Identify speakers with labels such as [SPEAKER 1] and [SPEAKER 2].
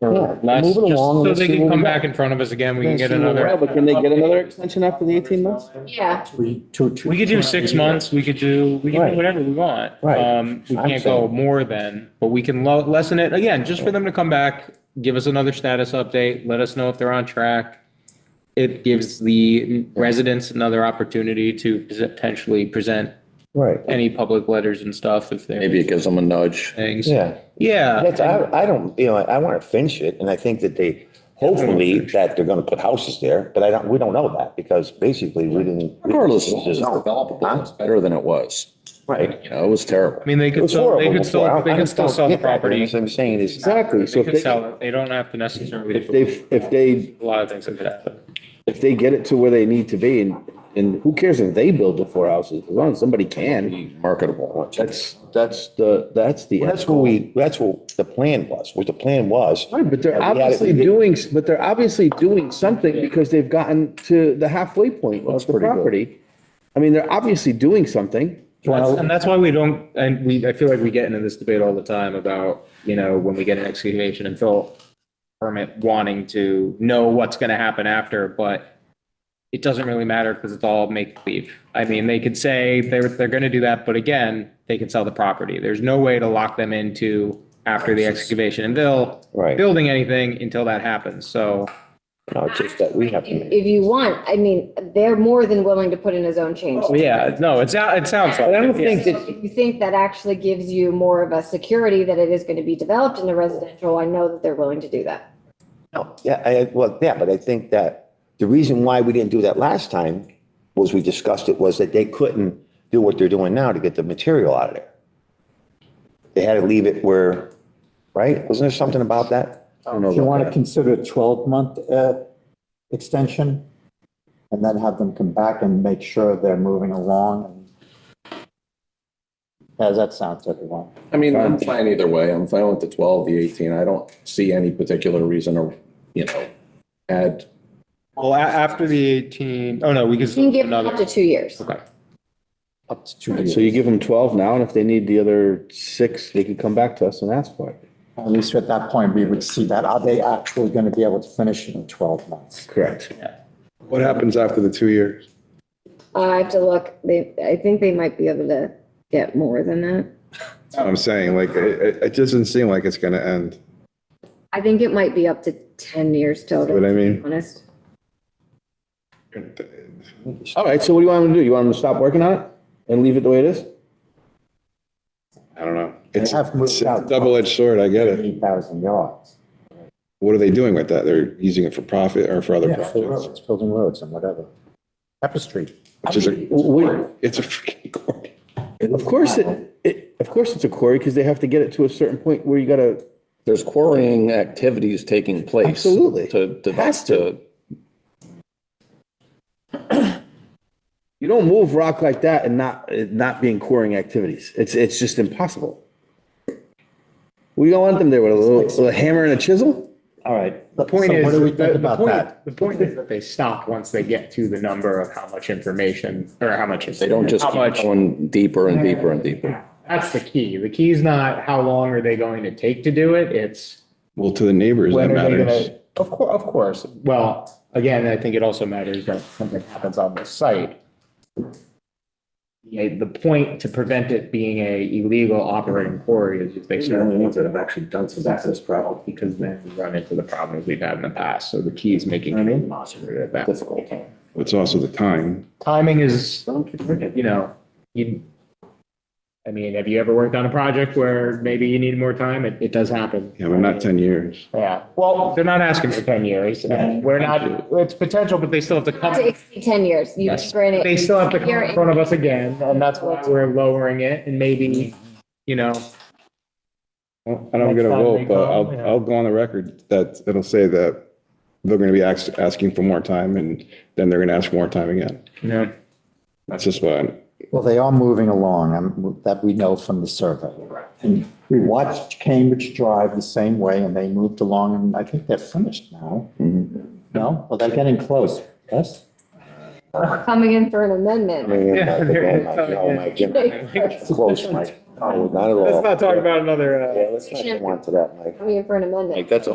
[SPEAKER 1] Yeah,
[SPEAKER 2] for less.
[SPEAKER 1] move it
[SPEAKER 2] just
[SPEAKER 1] along and
[SPEAKER 2] So
[SPEAKER 1] let's
[SPEAKER 2] they
[SPEAKER 1] see
[SPEAKER 2] can
[SPEAKER 1] where
[SPEAKER 2] come
[SPEAKER 1] we go.
[SPEAKER 2] back in front of us again. We can
[SPEAKER 1] Then
[SPEAKER 2] get
[SPEAKER 1] see where
[SPEAKER 2] another.
[SPEAKER 1] we're
[SPEAKER 3] Yeah, but can they get another extension after the eighteen months?
[SPEAKER 4] Yeah,
[SPEAKER 1] We to- to-
[SPEAKER 2] We could do six months, we could do, we can
[SPEAKER 1] Right.
[SPEAKER 2] do whatever we want.
[SPEAKER 1] Right.
[SPEAKER 2] Um, we
[SPEAKER 1] I'm
[SPEAKER 2] can't go
[SPEAKER 1] saying-
[SPEAKER 2] more than, but we can lo- lessen it, again, just for them to come back, give us another status update, let us know if they're on track. It gives the residents another opportunity to potentially present
[SPEAKER 1] Right,
[SPEAKER 2] any public letters and stuff if
[SPEAKER 3] Maybe
[SPEAKER 2] they're
[SPEAKER 3] it gives them a nudge.
[SPEAKER 2] things.
[SPEAKER 1] yeah.
[SPEAKER 2] Yeah,
[SPEAKER 5] That's, I, I don't, you know, I want to finish it and I think that they, hopefully that they're going to put houses there, but I don't, we don't know that because basically we didn't.
[SPEAKER 3] Regardless,
[SPEAKER 5] we didn't
[SPEAKER 3] it's
[SPEAKER 5] know.
[SPEAKER 3] developable,
[SPEAKER 5] Huh?
[SPEAKER 3] it's better than it was.
[SPEAKER 5] Right.
[SPEAKER 3] You know, it was terrible.
[SPEAKER 2] I mean, they
[SPEAKER 5] It
[SPEAKER 2] could
[SPEAKER 5] was
[SPEAKER 2] still,
[SPEAKER 5] horrible
[SPEAKER 2] they could
[SPEAKER 5] before.
[SPEAKER 2] still, they
[SPEAKER 5] I'm-
[SPEAKER 2] could
[SPEAKER 5] I'm
[SPEAKER 2] still sell the
[SPEAKER 5] getting at that.
[SPEAKER 2] property.
[SPEAKER 5] That's what I'm saying is. Exactly. So
[SPEAKER 2] They
[SPEAKER 5] if
[SPEAKER 2] could
[SPEAKER 5] they,
[SPEAKER 2] sell it, they don't have to necessarily.
[SPEAKER 5] if they, if they,
[SPEAKER 2] A lot of things that could happen.
[SPEAKER 5] if they get it to where they need to be and, and who cares if they build the four houses, as long as somebody can.
[SPEAKER 3] Marketable.
[SPEAKER 5] That's, that's the, that's the. That's what we, that's what the plan was, what the plan was.
[SPEAKER 6] Right, but they're
[SPEAKER 5] Yeah, we had it-
[SPEAKER 6] obviously doing, but they're obviously doing something because they've gotten to the halfway point
[SPEAKER 5] Looks
[SPEAKER 6] of the
[SPEAKER 5] pretty good.
[SPEAKER 6] property. I mean, they're obviously doing something.
[SPEAKER 2] That's- And that's why we don't, and we, I feel like we get into this debate all the time about, you know, when we get an excavation and fill permit wanting to know what's gonna happen after, but it doesn't really matter because it's all make believe. I mean, they could say they're, they're gonna do that, but again, they can sell the property. There's no way to lock them into after the excavation and bill,
[SPEAKER 5] Right.
[SPEAKER 2] building anything until that happens, so.
[SPEAKER 5] No, it's just that we have to.
[SPEAKER 4] if you want, I mean, they're more than willing to put in a zone change.
[SPEAKER 2] Well, Yeah, no, it's, it sounds like.
[SPEAKER 5] I don't
[SPEAKER 2] it, yeah.
[SPEAKER 5] think
[SPEAKER 4] So
[SPEAKER 5] that,
[SPEAKER 4] If you think that actually gives you more of a security that it is going to be developed in the residential, I know that they're willing to do that.
[SPEAKER 5] no, yeah, I, well, yeah, but I think that the reason why we didn't do that last time was we discussed it was that they couldn't do what they're doing now to get the material out of there. They had to leave it where, right? Wasn't there something about that? I don't know.
[SPEAKER 1] Do you
[SPEAKER 5] about
[SPEAKER 1] want to
[SPEAKER 5] that.
[SPEAKER 1] consider a twelve-month uh, extension? And then have them come back and make sure they're moving along? How's that sound to everyone?
[SPEAKER 3] I mean, I'm fine either way. I'm fine with the twelve, the eighteen. I don't see any particular reason or, you know, add.
[SPEAKER 2] Well, a- after the eighteen, oh no, we could.
[SPEAKER 4] You
[SPEAKER 2] still
[SPEAKER 4] can
[SPEAKER 2] do
[SPEAKER 4] give them up
[SPEAKER 2] another.
[SPEAKER 4] to two years.
[SPEAKER 2] Okay.
[SPEAKER 3] Up to two
[SPEAKER 6] So you give them twelve now, and if they need the other six, they can come back to us and ask for it.
[SPEAKER 1] At least at that point, we would see that, are they actually going to be able to finish it in twelve months?
[SPEAKER 6] Correct.
[SPEAKER 7] What happens after the two years?
[SPEAKER 4] I have to look, they, I think they might be able to get more than that.
[SPEAKER 7] That's what I'm saying, like, it, it- it doesn't seem like it's gonna end,
[SPEAKER 4] I think it might be up to ten years
[SPEAKER 7] you know
[SPEAKER 4] total,
[SPEAKER 7] what I
[SPEAKER 4] to be
[SPEAKER 7] mean?
[SPEAKER 4] honest.
[SPEAKER 6] All right, so what do you want them to do? You want them to stop working on it and leave it the way it is?
[SPEAKER 7] I don't know.
[SPEAKER 1] They
[SPEAKER 7] It's
[SPEAKER 1] have moved
[SPEAKER 7] it's a
[SPEAKER 1] out.
[SPEAKER 7] double-edged sword, I get it.
[SPEAKER 1] Eight thousand yards.
[SPEAKER 7] What are they doing with that? They're using it for profit or for other
[SPEAKER 1] Yeah, for
[SPEAKER 7] projects?
[SPEAKER 1] roads, building roads and whatever. Tapestry.
[SPEAKER 7] Which is a,
[SPEAKER 6] We-
[SPEAKER 7] it's a freaking quarry.
[SPEAKER 6] Of course, it, it, of course it's a quarry because they have to get it to a certain point where you gotta,
[SPEAKER 3] There's quarrying activities taking place.
[SPEAKER 6] Absolutely.
[SPEAKER 3] To, to,
[SPEAKER 6] Has
[SPEAKER 3] to,
[SPEAKER 6] you don't move rock like that and not, it not being quarrying activities. It's, it's just impossible. We don't want them there with a little, with a hammer and a chisel?
[SPEAKER 1] All right.
[SPEAKER 2] The point is.
[SPEAKER 1] What do we think
[SPEAKER 2] the- the
[SPEAKER 1] about
[SPEAKER 2] point-
[SPEAKER 1] that?
[SPEAKER 2] The point is that they stop once they get to the number of how much information or how much.
[SPEAKER 3] they don't just
[SPEAKER 2] How
[SPEAKER 3] keep
[SPEAKER 2] much.
[SPEAKER 3] going deeper and deeper and deeper.
[SPEAKER 2] That's the key. The key is not how long are they going to take to do it? It's
[SPEAKER 7] Well, to the neighbors,
[SPEAKER 2] when
[SPEAKER 7] that
[SPEAKER 2] are they
[SPEAKER 7] matters.
[SPEAKER 2] gonna. Of cour, of course. Well, again, I think it also matters that something happens on the site. Yeah, the point to prevent it being a illegal operating quarry is if they start.
[SPEAKER 6] actually done some
[SPEAKER 2] access problem because then we
[SPEAKER 3] Mm-hmm.
[SPEAKER 2] run into the problems we've had in the past. So the key is making it monitored at that. Difficult.
[SPEAKER 7] It's also the time.
[SPEAKER 2] Timing is, you know, you, I mean, have you ever worked on a project where maybe you need more time? It, it does happen.
[SPEAKER 7] Yeah, but not ten years.
[SPEAKER 2] Yeah, well, they're not asking for ten years. and We're not, it's potential, but they still have to come.
[SPEAKER 4] Not to exceed ten years. You
[SPEAKER 2] Yes.
[SPEAKER 4] granted.
[SPEAKER 2] They still have to come
[SPEAKER 4] You're-
[SPEAKER 2] in front of us again, and that's why we're lowering it and maybe, you know.
[SPEAKER 7] Well, I don't get a
[SPEAKER 2] Next time
[SPEAKER 7] vote,
[SPEAKER 2] they
[SPEAKER 7] but
[SPEAKER 2] call,
[SPEAKER 7] I'll,
[SPEAKER 2] yeah.
[SPEAKER 7] I'll go on the record that it'll say that they're gonna be ask, asking for more time and then they're gonna ask for more time again.
[SPEAKER 2] Yeah.
[SPEAKER 7] That's just what, I'm-
[SPEAKER 1] Well, they are moving along, um, that we know from the survey. And we watched Cambridge Drive the same way, and they moved along, and I think they're finished now.
[SPEAKER 5] Mm-hmm.
[SPEAKER 1] No? Well, they're getting close, yes?
[SPEAKER 4] Coming in for an amendment.
[SPEAKER 2] Yeah, there it is.
[SPEAKER 5] No, Mike, you're Close, Mike. No, not at all.
[SPEAKER 2] Let's not talk about another, uh.
[SPEAKER 5] Yeah, let's not go on to that, Mike.
[SPEAKER 4] Coming in for an amendment.
[SPEAKER 3] Like, that's a